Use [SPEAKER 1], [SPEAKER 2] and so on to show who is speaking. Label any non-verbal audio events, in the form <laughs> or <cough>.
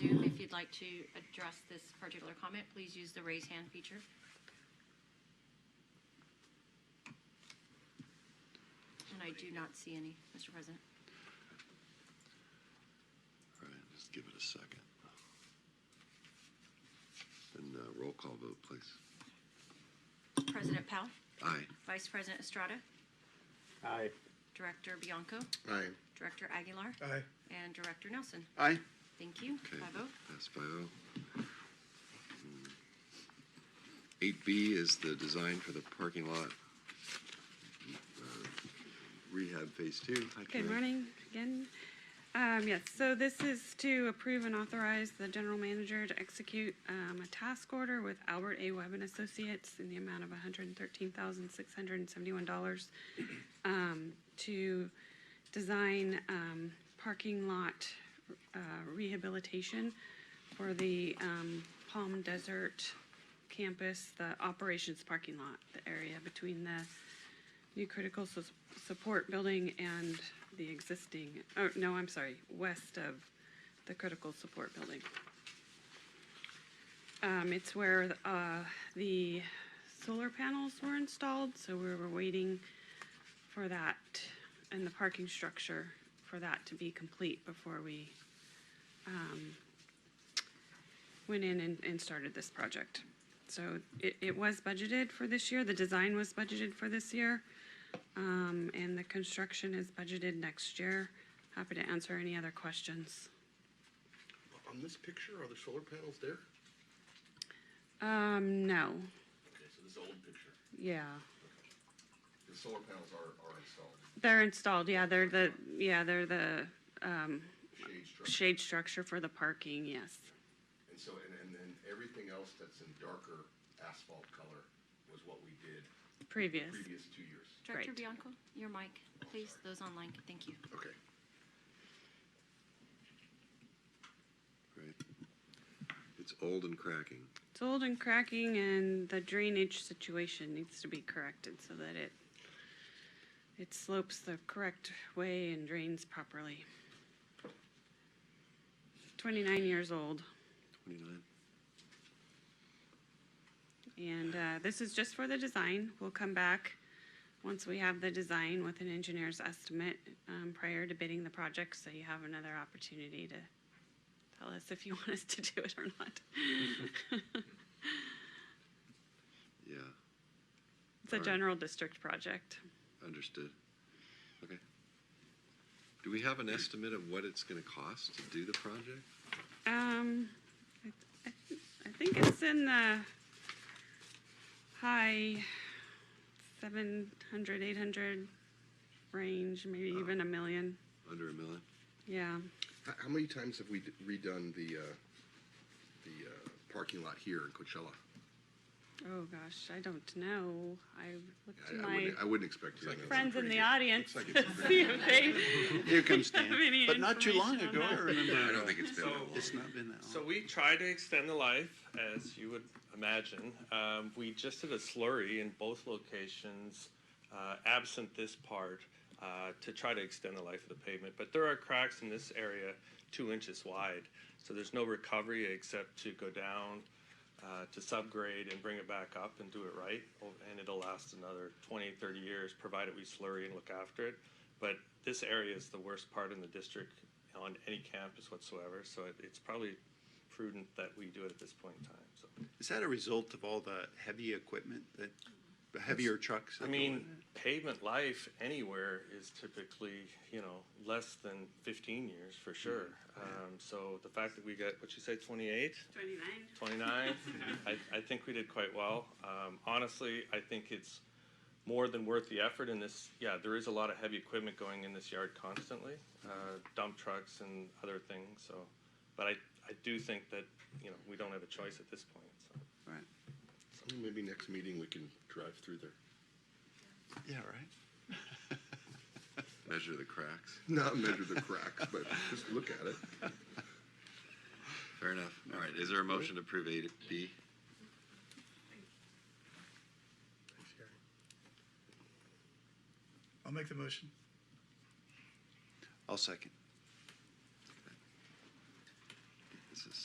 [SPEAKER 1] like to address this particular comment, please use the raise hand feature. And I do not see any, Mr. President.
[SPEAKER 2] All right, just give it a second. And uh, roll call vote, please.
[SPEAKER 1] President Powell,
[SPEAKER 2] Aye.
[SPEAKER 1] Vice President Estrada,
[SPEAKER 3] Aye.
[SPEAKER 1] Director Bianco,
[SPEAKER 4] Aye.
[SPEAKER 1] Director Aguilar,
[SPEAKER 3] Aye.
[SPEAKER 1] and Director Nelson.
[SPEAKER 4] Aye.
[SPEAKER 1] Thank you.
[SPEAKER 2] Okay,
[SPEAKER 1] Five oh.
[SPEAKER 2] That's five oh. Hmm. Eight B is the design for the parking lot uh, rehab phase two. Hi,
[SPEAKER 5] Good
[SPEAKER 2] Karen.
[SPEAKER 5] morning again. Um, yes, so this is to approve and authorize the general manager to execute, um, a task order with Albert A. Webb and Associates in the amount of hundred and thirteen thousand, six hundred and seventy-one dollars, um, to design, um, parking lot, uh, rehabilitation for the, um, Palm Desert campus, the operations parking lot, the area between the, new critical sus- support building and the existing, oh, no, I'm sorry, west of the critical support building. Um, it's where, uh, the solar panels were installed, so we were waiting for that and the parking structure for that to be complete before we, um, went in and, and started this project. So it, it was budgeted for this year, the design was budgeted for this year. Um, and the construction is budgeted next year. Happy to answer any other questions.
[SPEAKER 4] On this picture, are the solar panels there?
[SPEAKER 5] Um, no,
[SPEAKER 4] Okay, so this old picture,
[SPEAKER 5] yeah.
[SPEAKER 4] the solar panels are, are installed,
[SPEAKER 5] They're installed, yeah, they're the, yeah, they're the, um,
[SPEAKER 4] shade structure.
[SPEAKER 5] shade structure for the parking, yes.
[SPEAKER 4] And so, and, and then everything else that's in darker asphalt color was what we did
[SPEAKER 5] Previous,
[SPEAKER 4] previous two years.
[SPEAKER 1] Director
[SPEAKER 5] Great.
[SPEAKER 1] Bianco, your mic, please, those online, thank you.
[SPEAKER 4] Okay.
[SPEAKER 2] Right. It's old and cracking.
[SPEAKER 5] it's old and cracking and the drainage situation needs to be corrected so that it, it slopes the correct way and drains properly. Twenty-nine years old.
[SPEAKER 2] Twenty-nine.
[SPEAKER 5] And uh, this is just for the design. We'll come back once we have the design with an engineer's estimate um, prior to bidding the project, so you have another opportunity to tell us if you want us to do it or not.
[SPEAKER 2] Yeah,
[SPEAKER 5] <laughs> It's a
[SPEAKER 2] Alright.
[SPEAKER 5] general district project.
[SPEAKER 2] understood. Okay. Do we have an estimate of what it's going to cost to do the project?
[SPEAKER 5] Um, I- I thi- I think it's in the high 700, 800 range, maybe even a million.
[SPEAKER 2] Under a million?
[SPEAKER 5] Yeah.
[SPEAKER 4] How, how many times have we d- redone the, uh, the, uh, parking lot here in Coachella?
[SPEAKER 5] Oh gosh, I don't know. I looked to
[SPEAKER 4] I- I
[SPEAKER 5] my
[SPEAKER 4] wouldn't- I wouldn't expect to. know.
[SPEAKER 5] friends in the audience
[SPEAKER 4] looks
[SPEAKER 5] <laughs>
[SPEAKER 4] like
[SPEAKER 5] to
[SPEAKER 4] it's a
[SPEAKER 5] see if they
[SPEAKER 6] Here comes
[SPEAKER 5] have
[SPEAKER 6] Dan.
[SPEAKER 5] any
[SPEAKER 6] But not too long
[SPEAKER 5] information
[SPEAKER 6] ago,
[SPEAKER 5] on
[SPEAKER 6] I
[SPEAKER 5] that.
[SPEAKER 6] remember.
[SPEAKER 4] I don't think it's been.
[SPEAKER 7] So-
[SPEAKER 4] that long.
[SPEAKER 6] It's not been that
[SPEAKER 7] So
[SPEAKER 6] long.
[SPEAKER 7] we try to extend the life, as you would imagine. Um, we just did a slurry in both locations, uh, absent this part, uh, to try to extend the life of the pavement. But there are cracks in this area two inches wide, so there's no recovery except to go down uh, to subgrade and bring it back up and do it right. o- And it'll last another 20, 30 years, provided we slurry and look after it. But this area is the worst part in the district on any campus whatsoever, so it, it's probably prudent that we do it at this point in time, so.
[SPEAKER 6] Is that a result of all the heavy equipment that, the heavier trucks? that
[SPEAKER 7] I
[SPEAKER 6] go
[SPEAKER 7] mean,
[SPEAKER 6] in?
[SPEAKER 7] pavement life anywhere is typically, you know, less than fifteen years for sure. Um, so the fact that we got, what you say, twenty-eight?
[SPEAKER 5] 29.
[SPEAKER 7] 29. I, I think we did quite well. Um, honestly, I think it's more than worth the effort in this. Yeah, there is a lot of heavy equipment going in this yard constantly, uh, dump trucks and other things. So, but I, I do think that, you know, we don't have a choice at this point. So.
[SPEAKER 6] Right.
[SPEAKER 4] Maybe next meeting we can drive through there.
[SPEAKER 6] Yeah, right?
[SPEAKER 2] Measure the cracks.
[SPEAKER 4] Not measure the cracks, but just look at it.
[SPEAKER 2] Fair enough. All right, is there a motion to approve eight B?
[SPEAKER 8] I'll make the motion.
[SPEAKER 6] I'll second.